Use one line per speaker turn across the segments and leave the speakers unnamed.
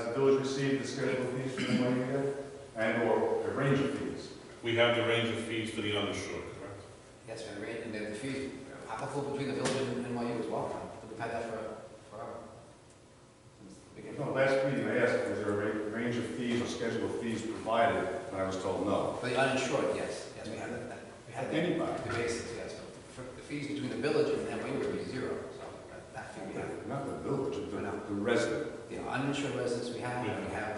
receive the schedule of fees from the money yet? And or a range of fees?
We have the range of fees for the undershore, correct?
Yes, and rate, and the the fees, applicable between the village and NYU as well, we've had that for, forever. Since the beginning.
No, last meeting I asked, was there a ra- range of fees or schedule of fees provided, and I was told no.
For the uninsured, yes, yes, we had that, that- we had that,
Anybody?
the basis, yes, For the fees between the village and NYU would be zero, so that- that fee we have.
Not the village, the,
I know.
the resident.
The uninsured residents we have,
Yeah.
we have,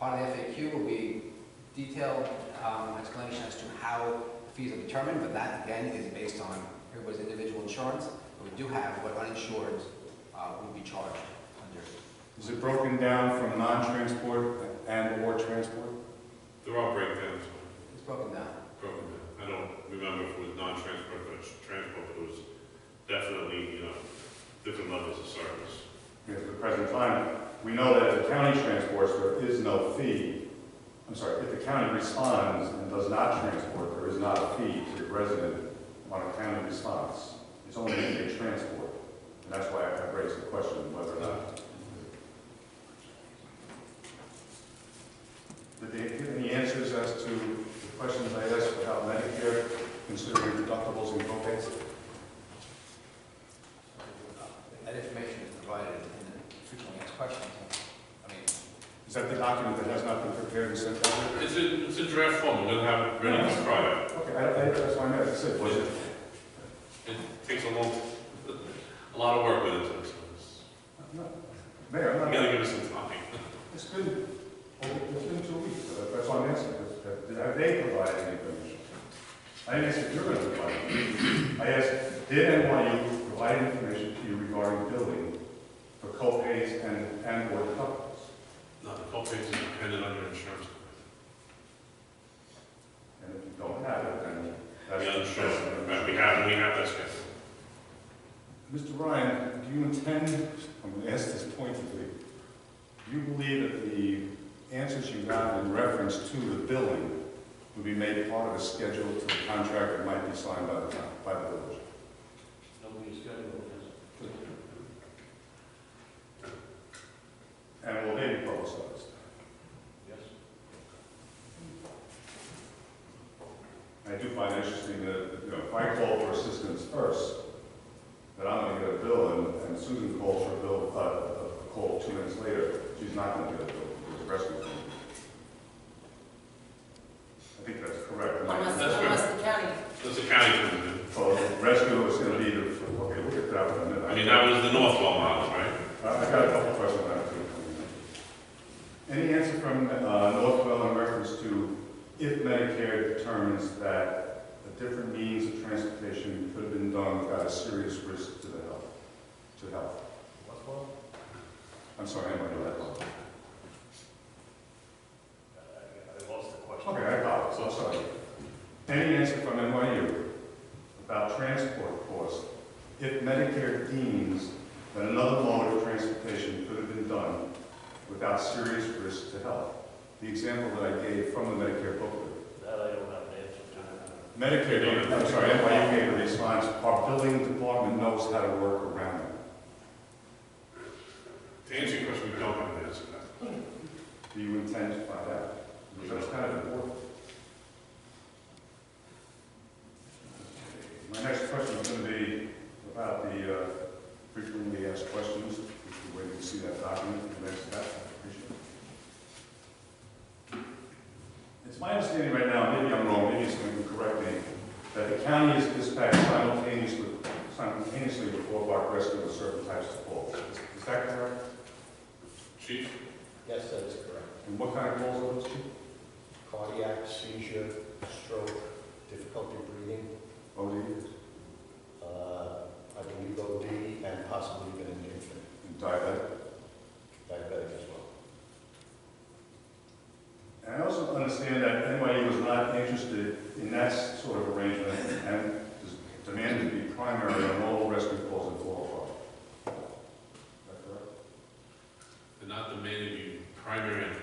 part of the FAQ will be detailed um, explanation as to how fees are determined, but that again is based on everybody's individual insurance. But we do have what uninsured uh, would be charged under.
Is it broken down from non-transport and or transport?
There are breakdowns,
It's broken down.
broken down. I don't remember if it was non-transport, but it's transport, but it was definitely, you know, different levels of service.
At the present time, we know that if the county transports, there is no fee. I'm sorry, if the county responds and does not transport, there is not a fee to the resident on a county response. It's only if they transport. And that's why I raised the question whether or not. Did they give any answers as to the questions I asked about Medicare, considering deductibles and co-pays?
That information is provided in the frequently asked questions. I mean,
Is that the document that has not been prepared and sent out?
It's a, it's a draft form, we're gonna have it ready to try it.
Okay, I, I, that's why I meant, I said, was it,
It takes a long, a lot of work with it, so it's-
no, Mayor, I'm
you
not,
gotta give us some time.
it's been, it's been two weeks, uh, that's why I'm asking, Have- have have they provided any information? I didn't ask if you're gonna provide, it. I asked, did NYU provide information to you regarding billing for co-pays and, and or deductibles?
No, the co-pays is dependent on your insurance.
And if you don't have it, then
The
that's.
uninsured, right, we have, we have that schedule.
Mr. Ryan, do you intend, I'm going to ask this pointedly, do you believe that the answers you got in reference to the billing would be made part of a schedule to the contract that might be signed by the, town- by the village?
Nobody's got it, yes.
And will they be publicized?
Yes.
I do find it interesting that, you know, if I call for assistance first, that I'm gonna get a bill, and- and Susan calls for a bill, uh, a call two minutes later, she's not gonna get a bill, because the rescue. team. I think that's correct. Am I-
Unless,
That's
unless the county,
That's the county comes in.
So rescue is gonna be, the- okay, we'll get that one. in a minute.
I mean, that was the Northwell model, right?
I Uh, I got a couple of questions on it too. Any answer from uh, Northwell in reference to if Medicare determines that a different means of transportation could have been done without a serious risk to the health, to health? I'm sorry, I didn't know that.
I lost the question.
Okay, I got it, so sorry. Any answer from NYU about transport costs? If Medicare deems that another mode of transportation could have been done without serious risk to health? The example that I gave from the Medicare booklet.
That I don't have an answer
Medicare, I'm sorry, NYU gave a response, our billing department knows how to work around it.
To answer your question, we don't have an answer to that.
Do you intend to find out? Because That's kind of important. My next question is going to be about the uh, frequently asked questions. If you're waiting to see that document, the next step, I appreciate it. It's my understanding right now, maybe I'm wrong, maybe someone can correct me, that the county is dispatched simultaneously, simultaneously with Fort Park Rescue with certain types of calls. Is is that correct?
Chief?
Yes, that is correct.
And what kind of calls are those, Chief?
Cardiac, seizure, stroke, difficulty breathing,
OD?
uh, I believe OD, and possibly even an infant,
And diabetic?
diabetic as well.
And I also understand that NYU was not interested in that sort of arrangement and is demanded to be primary on all rescue calls in Flore Park. Is that correct?
They're not demanding you primary on